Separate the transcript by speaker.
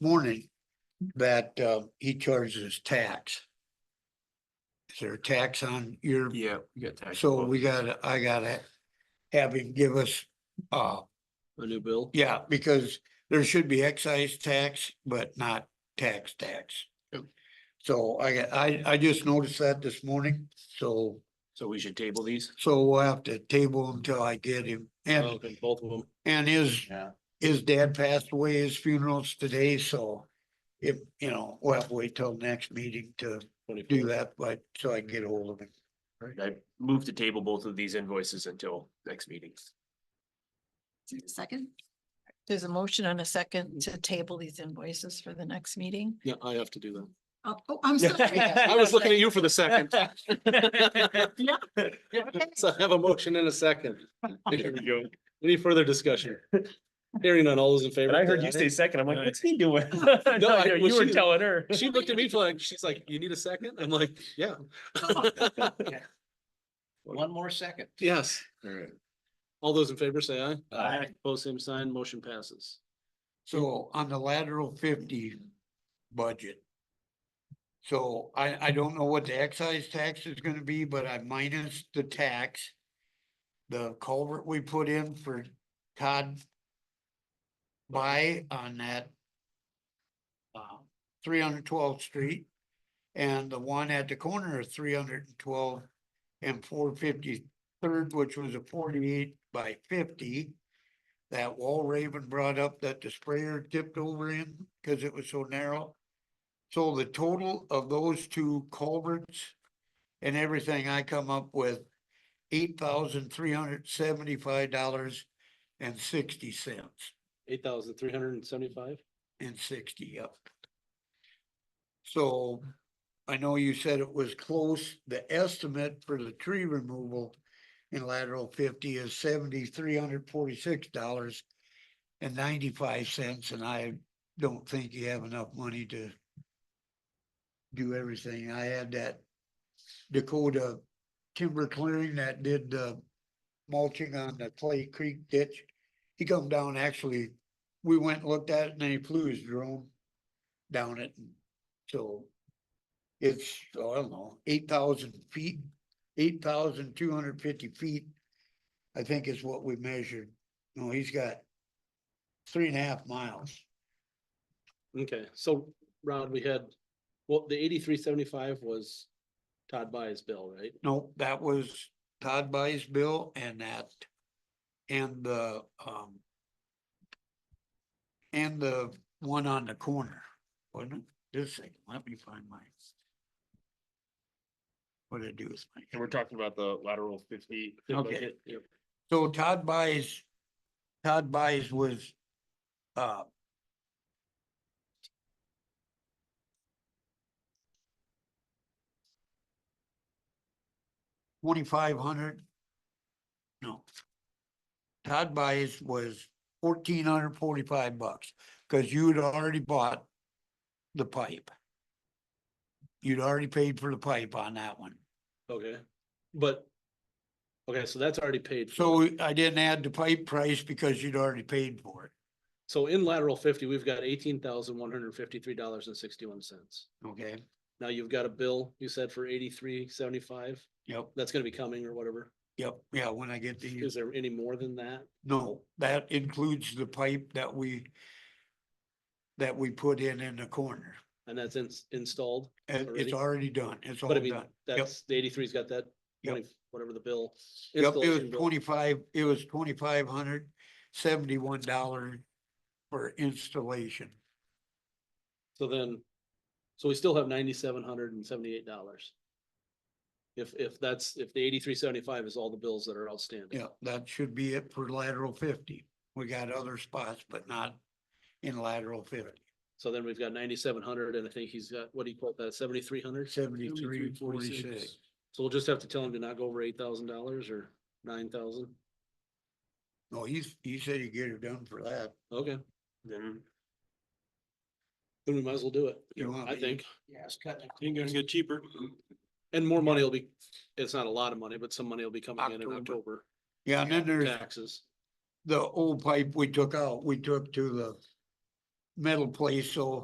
Speaker 1: morning that uh, he charges tax. Is there a tax on your,
Speaker 2: Yeah, we got tax.
Speaker 1: so
Speaker 2: bill.
Speaker 1: we gotta, I gotta have him give us, uh,
Speaker 2: A new bill?
Speaker 1: yeah, because there should be excise tax, but not tax tax.
Speaker 2: Yep.
Speaker 1: So I, got- I, I just noticed that this morning, so,
Speaker 2: So we should table these?
Speaker 1: so we'll have to table until I get him. And,
Speaker 2: Okay, Both of them.
Speaker 1: and his
Speaker 2: Yeah.
Speaker 1: his dad passed away, his funeral's today, so if, you know, we'll have to wait till next meeting to do that, but so I can get hold of him.
Speaker 2: I move to table both of these invoices until next meeting.
Speaker 3: Second. Mm-hmm. There's a motion and a second to table these invoices for the next meeting.
Speaker 2: Yeah, I have to do
Speaker 3: Oh, oh, I'm sorry.
Speaker 2: that. I was looking at you for the second. So I have a motion and a second. There we go. Any further discussion? Hearing none, all those in favor?
Speaker 4: And I heard you say second, I'm like, what's he doing? No,
Speaker 2: I-
Speaker 4: you-
Speaker 2: well,
Speaker 4: You were
Speaker 2: she-
Speaker 4: telling her.
Speaker 2: She looked at me for like, she's like, you need a second? I'm like, yeah.
Speaker 5: One more second.
Speaker 2: Yes. All those in favor say aye.
Speaker 5: Aye.
Speaker 2: Both same sign, motion passes.
Speaker 1: So on the lateral fifty budget. So I, I don't know what the excise tax is gonna be, but I minus the tax. The culvert we put in for Todd. By on that. Uh, three hundred twelfth street. And the one at the corner of three hundred and twelve and four fifty third, which was a forty-eight by fifty that wall Raven brought up that the sprayer tipped over in because it was so narrow. So the total of those two culverts and everything, I come up with eight thousand three hundred seventy-five dollars and sixty cents
Speaker 2: Eight thousand three hundred and seventy-five?
Speaker 1: and sixty up. So I know you said it was close. The estimate for the tree removal in lateral fifty is seventy-three hundred forty-six dollars and ninety-five cents, and I don't think you have enough money to do everything. I had that Dakota timber clearing that did the mulching on the Clay Creek ditch. He come down actually we went and looked at it and then he flew his drone down it. and So it's, oh, I don't know, eight thousand feet, eight thousand two hundred fifty feet. I think is what we measured. No, he's got three and a half miles.
Speaker 2: Okay, so Rod, we had, well, the eighty-three seventy-five was Todd By's bill, right?
Speaker 1: No, that was Todd buys bill and that, and the, um, and the one on the corner, wasn't it? This thing, let me find my. What did I do with my?
Speaker 4: we're talking about the lateral fifty.
Speaker 1: Okay.
Speaker 2: Yep.
Speaker 1: So Todd buys, Todd buys was, uh. Twenty-five hundred? No. Todd buys was fourteen hundred forty-five bucks, cause you'd already bought the pipe. You'd already paid for the pipe on that one.
Speaker 2: Okay, but, okay, so that's already paid. for.
Speaker 1: So I didn't add the pipe price because you'd already paid for it,
Speaker 2: So in lateral fifty, we've got eighteen thousand one hundred fifty-three dollars and sixty-one cents.
Speaker 1: okay?
Speaker 2: Now you've got a bill, you said for eighty-three seventy-five,
Speaker 1: Yep,
Speaker 2: that's gonna be coming or whatever.
Speaker 1: yep, yeah, when I get the,
Speaker 2: Is there any more than that?
Speaker 1: no, that includes the pipe that we. That we put in in the corner,
Speaker 2: And that's ins- installed?
Speaker 1: and
Speaker 2: Already?
Speaker 1: it's already done, it's all
Speaker 2: But I
Speaker 1: done.
Speaker 2: mean,
Speaker 1: Yep,
Speaker 2: that's, the eighty-three's got that,
Speaker 1: Yep.
Speaker 2: 20 whatever the bill.
Speaker 1: it was
Speaker 2: installation bill.
Speaker 1: twenty-five, it was twenty-five hundred seventy-one dollar for installation.
Speaker 2: So then, so we still have ninety-seven hundred and seventy-eight dollars. If, if that's, if the eighty-three seventy-five is all the bills that are outstanding.
Speaker 1: Yeah, that should be it for lateral fifty, we got other spots, but not in lateral fifty,
Speaker 2: So then we've got ninety-seven hundred and I think he's got, what do you call that, seventy-three hundred?
Speaker 1: seventy-three, forty-six.
Speaker 2: So we'll just have to tell him to not go over eight thousand dollars or nine thousand.
Speaker 1: No, he's, he said he'd get it done for that,
Speaker 2: Okay, then. Then we might as well do it,
Speaker 1: You want
Speaker 2: I
Speaker 1: me-
Speaker 2: think.
Speaker 5: Yeah, it's cutting.
Speaker 2: You're gonna get cheaper. And more money will be, it's not a lot of money, but some money will be coming in in
Speaker 1: October.
Speaker 2: October,
Speaker 1: yeah, and then there's
Speaker 2: taxes.
Speaker 1: the old pipe we took out, we took to the metal place, so